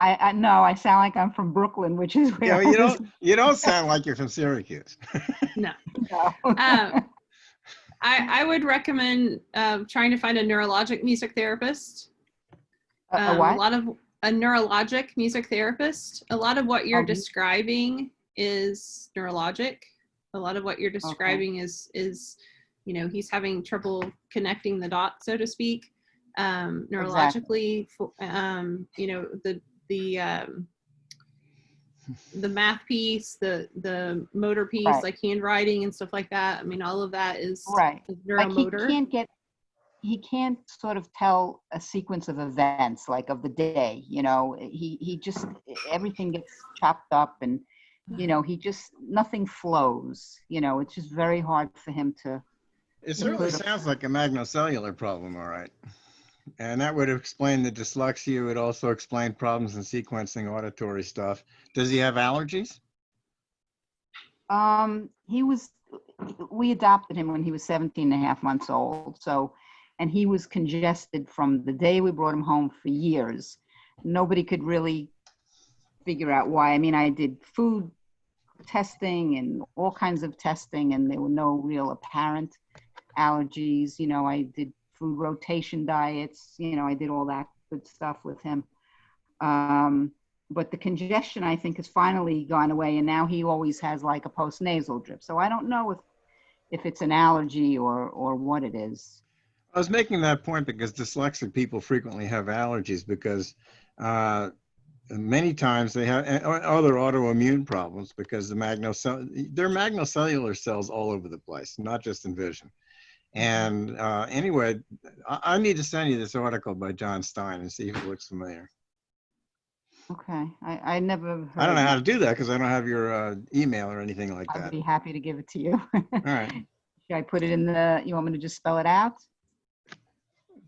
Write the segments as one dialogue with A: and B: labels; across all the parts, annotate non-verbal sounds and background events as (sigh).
A: I, I no, I sound like I'm from Brooklyn, which is where
B: Yeah,
A: all
B: you
A: this-
B: don't, you don't sound like you're from Syracuse.
A: no.
C: Um, I, I would recommend um, trying to find a neurologic music therapist.
A: A- a
C: Um,
A: uh, what?
C: A lot of a neurologic music therapist. A lot of what you're
A: Oh, mu-
C: describing is neurologic. A lot of what you're
A: Uh-huh.
C: describing is is, you know, he's having trouble connecting the dots, so to speak, um, neurologically. fo- Um, you know, the the um, the math piece, the the motor piece,
A: Right.
C: like handwriting and stuff like that. I mean, all of that is
A: right.
C: is
A: Like he
C: neuromotor.
A: can't get he can't sort of tell a sequence of events like of the day, you know. He he just e, everything gets chopped up and you know, he just nothing flows, you know, it's just very hard for him to
B: It certainly sounds like a magnocellular problem, all right. And that would explain the dyslexia. It would also explain problems in sequencing auditory stuff. Does he have allergies?
A: Um, he was, we adopted him when he was 17 and a half months old. So, and he was congested from the day we brought him home for years. Nobody could really figure out why. I mean, I did food testing and all kinds of testing, and there were no real apparent allergies. You know, I did food rotation diets, you know, I did all that good stuff with him. Um, but the congestion I think has finally gone away, and now he always has like a post nasal drip. So I don't know if if it's an allergy or or what it is.
B: I was making that point because dyslexic people frequently have allergies because uh, many times they have and o- other autoimmune problems because the magnocell they're magnocellular cells all over the place, not just in vision. And uh, anyway, I, I need to send you this article by John Stein and see if it looks familiar.
A: Okay, I I never. Heard
B: I don't know
A: of
B: how
A: it.
B: to do that because I don't have your uh, email or anything like
A: I'd
B: that.
A: be happy to give it to you. (laughs)
B: All right,
A: Should I put it in the? You want me to just spell it out?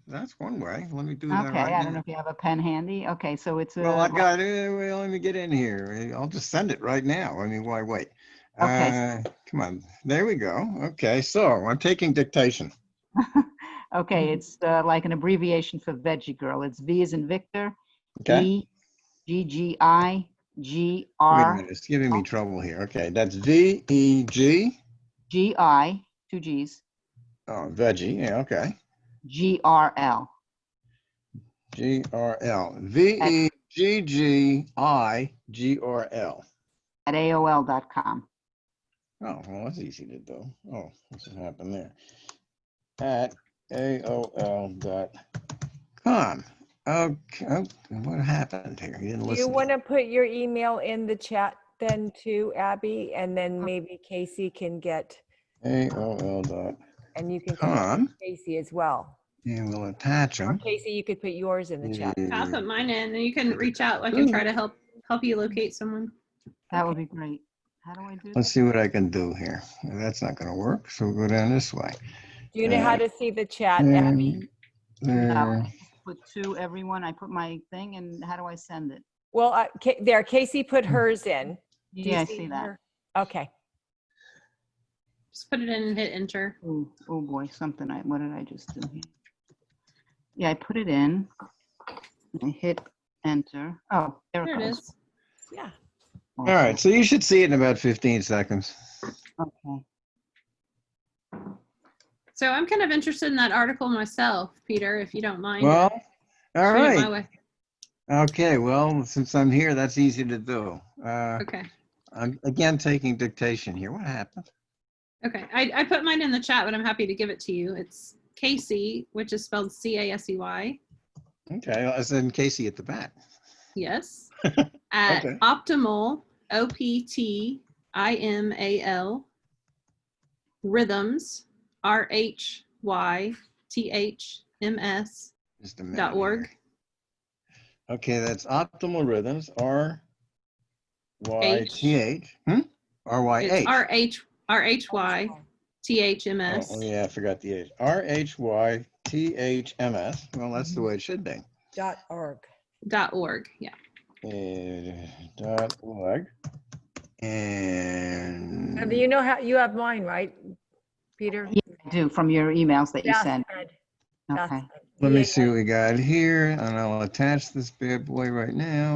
B: that's one way. Let me do that
A: Okay, I
B: right
A: don't know
B: now.
A: if you have a pen handy. Okay, so it's a.
B: Well, I got eh, it. Well, let me get in here. I'll just send it right now. I mean, why wait?
A: Okay.
B: Uh, Come on, there we go. Okay, so I'm taking dictation.
A: (laughs) okay, it's uh, like an abbreviation for Veggie Girl. It's V is in Victor.
B: Okay,
A: E, G G I G
B: wait a
A: R
B: minute, it's giving me trouble here. Okay, that's V E G,
A: G I two G's
B: oh, veggie, yeah, okay.
A: G R L.
B: G R L, V E G G I G R L.
A: at AOL.com.
B: Oh, well, that's easy to do. Oh, what's happened there? At AOL dot com. Okay, oh, what happened here? You didn't
D: Do you
B: listen.
D: want to put your email in the chat then too, Abby? And then maybe Casey can get,
B: AOL dot
D: and you can connect
B: com,
D: Casey as well.
B: and we'll attach
D: Or
B: them.
D: Casey, you could put yours in the chat.
B: Mm-hmm.
C: I'll put mine in, and you can reach out. I can try to help help you locate someone.
A: That would be great. How do I do
B: Let's
A: that?
B: see what I can do here. That's not gonna work, so we'll go down this way.
D: Do you know how
B: Uh,
D: to see the chat, Abby?
B: Um,
A: No,
B: there.
A: I just Put to everyone, I put my thing and how do I send it?
D: Well, uh, Ca- there, Casey put
B: Mm.
D: hers in. Do you
A: Yeah, I see that.
D: her? Okay.
C: Just put it in and hit enter.
A: Oh, oh boy, something, I, what did I just do here? Yeah, I put it in. I hit enter. Oh, there
C: There
A: it
C: it
A: goes.
C: is.
D: Yeah.
B: All right, so you should see it in about 15 seconds.
A: Okay.
C: So I'm kind of interested in that article myself, Peter, if you don't mind.
B: Well, all
C: Shoot it my
B: right.
C: way.
B: Okay, well, since I'm here, that's easy to do. Uh,
C: Okay.
B: I'm again taking dictation here. What happened?
C: Okay. I, I put mine in the chat, but I'm happy to give it to you. It's Casey, which is spelled C A S E Y.
B: Okay, I said Casey at the bat. (laughs)
C: Yes. At
B: Okay.
C: optimal, O P T I M A L, rhythms, R H Y T H M S
B: Just a minute.
C: dot org.
B: here. Okay, that's optimal rhythms. R Y
C: H.
B: T H. Hmm? R Y H.
C: It's R H R H Y T H M
B: Oh,
C: S.
B: oh, yeah, I forgot the H. R H Y T H M S. Well, that's the way it should be.
D: Dot org.
C: dot org. Yeah.
B: Uh, dot org. And
D: Abby, you know how, you have mine, right, Peter?
A: Yeah, I do, from your emails that you
D: That's
A: sent.
D: good. That's
A: Okay.
D: good.
B: let me
D: Yeah.
B: see what we got here, and I'll attach this bad boy right now.